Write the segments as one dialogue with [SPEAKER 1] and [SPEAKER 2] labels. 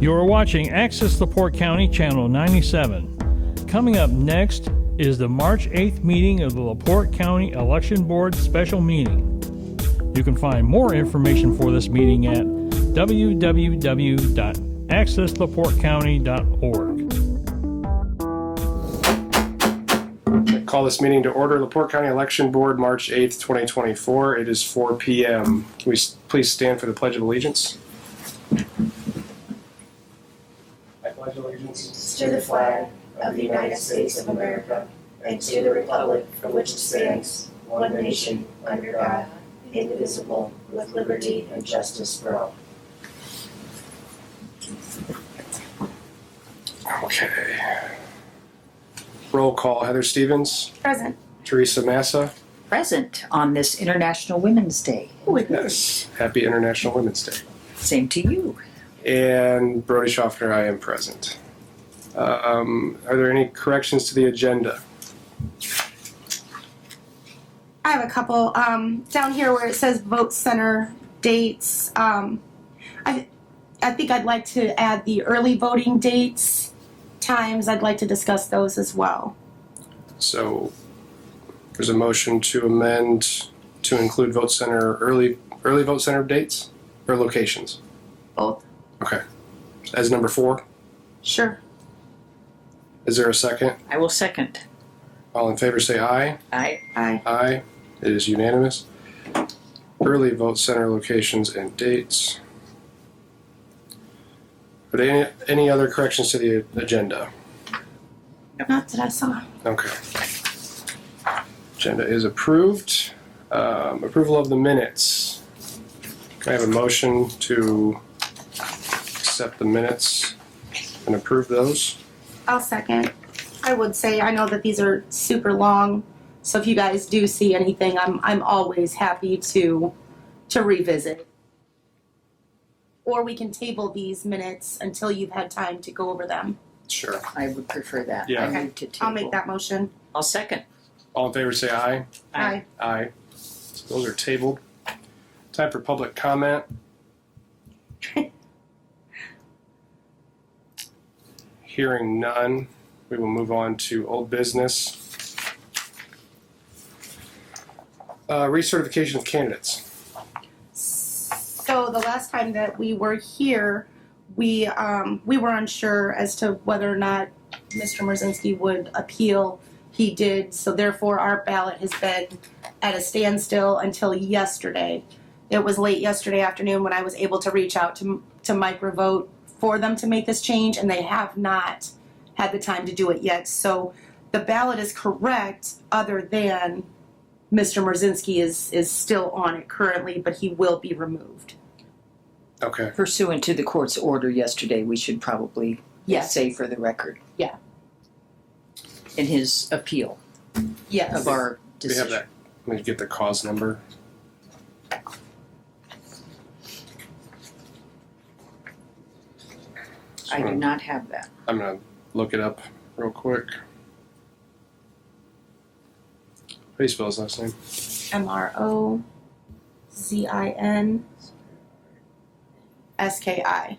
[SPEAKER 1] You are watching Access the Port County Channel 97. Coming up next is the March 8th meeting of the LaPorte County Election Board Special Meeting. You can find more information for this meeting at www.accesslaportecounty.org.
[SPEAKER 2] I Call this meeting to order, Laporte County Election Board, March 8th, 2024. It is 4 PM. Can we s- please stand for the Pledge of Allegiance? I pledge allegiance
[SPEAKER 3] to the flag of the United States of America and to the republic for which it stands, one nation, under God, indivisible, with liberty and justice for all.
[SPEAKER 2] Okay. Roll call, Heather Stevens,
[SPEAKER 4] Present.
[SPEAKER 2] Teresa Massa.
[SPEAKER 5] present on this International Women's Day.
[SPEAKER 2] Yes. Happy International Women's Day.
[SPEAKER 5] Same to you.
[SPEAKER 2] And Brody Schaffner, I am present. Um, Are there any corrections to the agenda?
[SPEAKER 4] I have a couple um, down here where it says vote center dates. Um, I, I think I'd like to add the early voting dates, times. I'd like to discuss those as well.
[SPEAKER 2] So there's a motion to amend to include vote center early, early vote center dates or locations
[SPEAKER 4] Both.
[SPEAKER 2] Okay. as number four.
[SPEAKER 4] Sure.
[SPEAKER 2] Is there a second?
[SPEAKER 5] I will second.
[SPEAKER 2] All in favor say aye.
[SPEAKER 5] I
[SPEAKER 4] Aye.
[SPEAKER 2] Aye. It is unanimous. Early vote center locations and dates. Are there any, any other corrections to the agenda?
[SPEAKER 4] Not that I saw.
[SPEAKER 2] Okay. Agenda is approved. Um, approval of the minutes. Can I have a motion to accept the minutes and approve those?
[SPEAKER 4] I'll second. I would say I know that these are super long, so if you guys do see anything, I'm I'm always happy to to revisit. Or we can table these minutes until you've had time to go over them.
[SPEAKER 2] Sure.
[SPEAKER 5] I would prefer that.
[SPEAKER 2] Yeah.
[SPEAKER 5] I move to table.
[SPEAKER 4] I'll make that motion.
[SPEAKER 5] I'll second.
[SPEAKER 2] All in favor say aye.
[SPEAKER 5] Aye.
[SPEAKER 2] Aye. Those are tabled. Time for public comment. Hearing none, we will move on to old business. Uh, recertification of candidates.
[SPEAKER 4] So the last time that we were here, we um, we were unsure as to whether or not Mr. Merzinski would appeal. He did, so therefore our ballot has been at a standstill until yesterday. It was late yesterday afternoon when I was able to reach out to to Microvote for them to make this change, and they have not had the time to do it yet. So the ballot is correct, other than Mr. Merzinski is is still on it currently, but he will be removed.
[SPEAKER 2] Okay,
[SPEAKER 5] Pursuant to the court's order yesterday, we should probably
[SPEAKER 4] Yes.
[SPEAKER 5] say for the record.
[SPEAKER 4] Yeah.
[SPEAKER 5] In his appeal
[SPEAKER 4] Yes.
[SPEAKER 5] of our
[SPEAKER 2] we have
[SPEAKER 5] decision.
[SPEAKER 2] that. Let me get the cause number.
[SPEAKER 5] I do not have that.
[SPEAKER 2] I'm gonna look it up real quick. How do you spell his last name?
[SPEAKER 4] M R O Z I N S K I.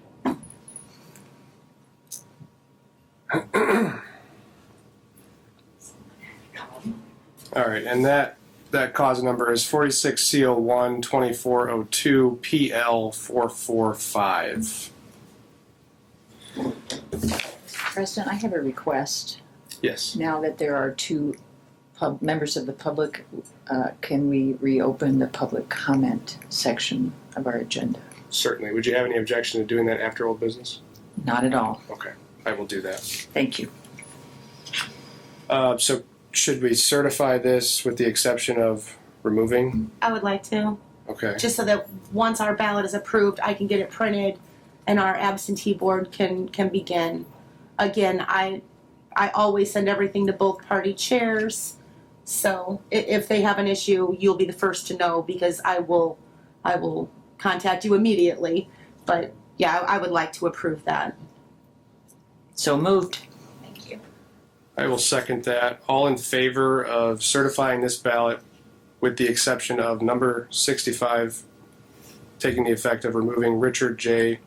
[SPEAKER 2] All right, and that that cause number is 46 CO one 2402 PL 445.
[SPEAKER 5] President, I have a request.
[SPEAKER 2] Yes.
[SPEAKER 5] Now that there are two pub, members of the public, uh, can we reopen the public comment section of our agenda?
[SPEAKER 2] Certainly. Would you have any objection to doing that after old business?
[SPEAKER 5] Not at all.
[SPEAKER 2] Okay, I will do that.
[SPEAKER 5] Thank you.
[SPEAKER 2] Uh, so, should we certify this with the exception of removing?
[SPEAKER 4] I would like to,
[SPEAKER 2] Okay.
[SPEAKER 4] just so that once our ballot is approved, I can get it printed and our absentee board can, can begin. Again, I, I always send everything to both party chairs. So i- if they have an issue, you'll be the first to know because I will, I will contact you immediately. But yeah, I I would like to approve that.
[SPEAKER 5] So moved.
[SPEAKER 3] Thank you.
[SPEAKER 2] I will second that. All in favor of certifying this ballot with the exception of number 65 taking the effect of removing Richard J.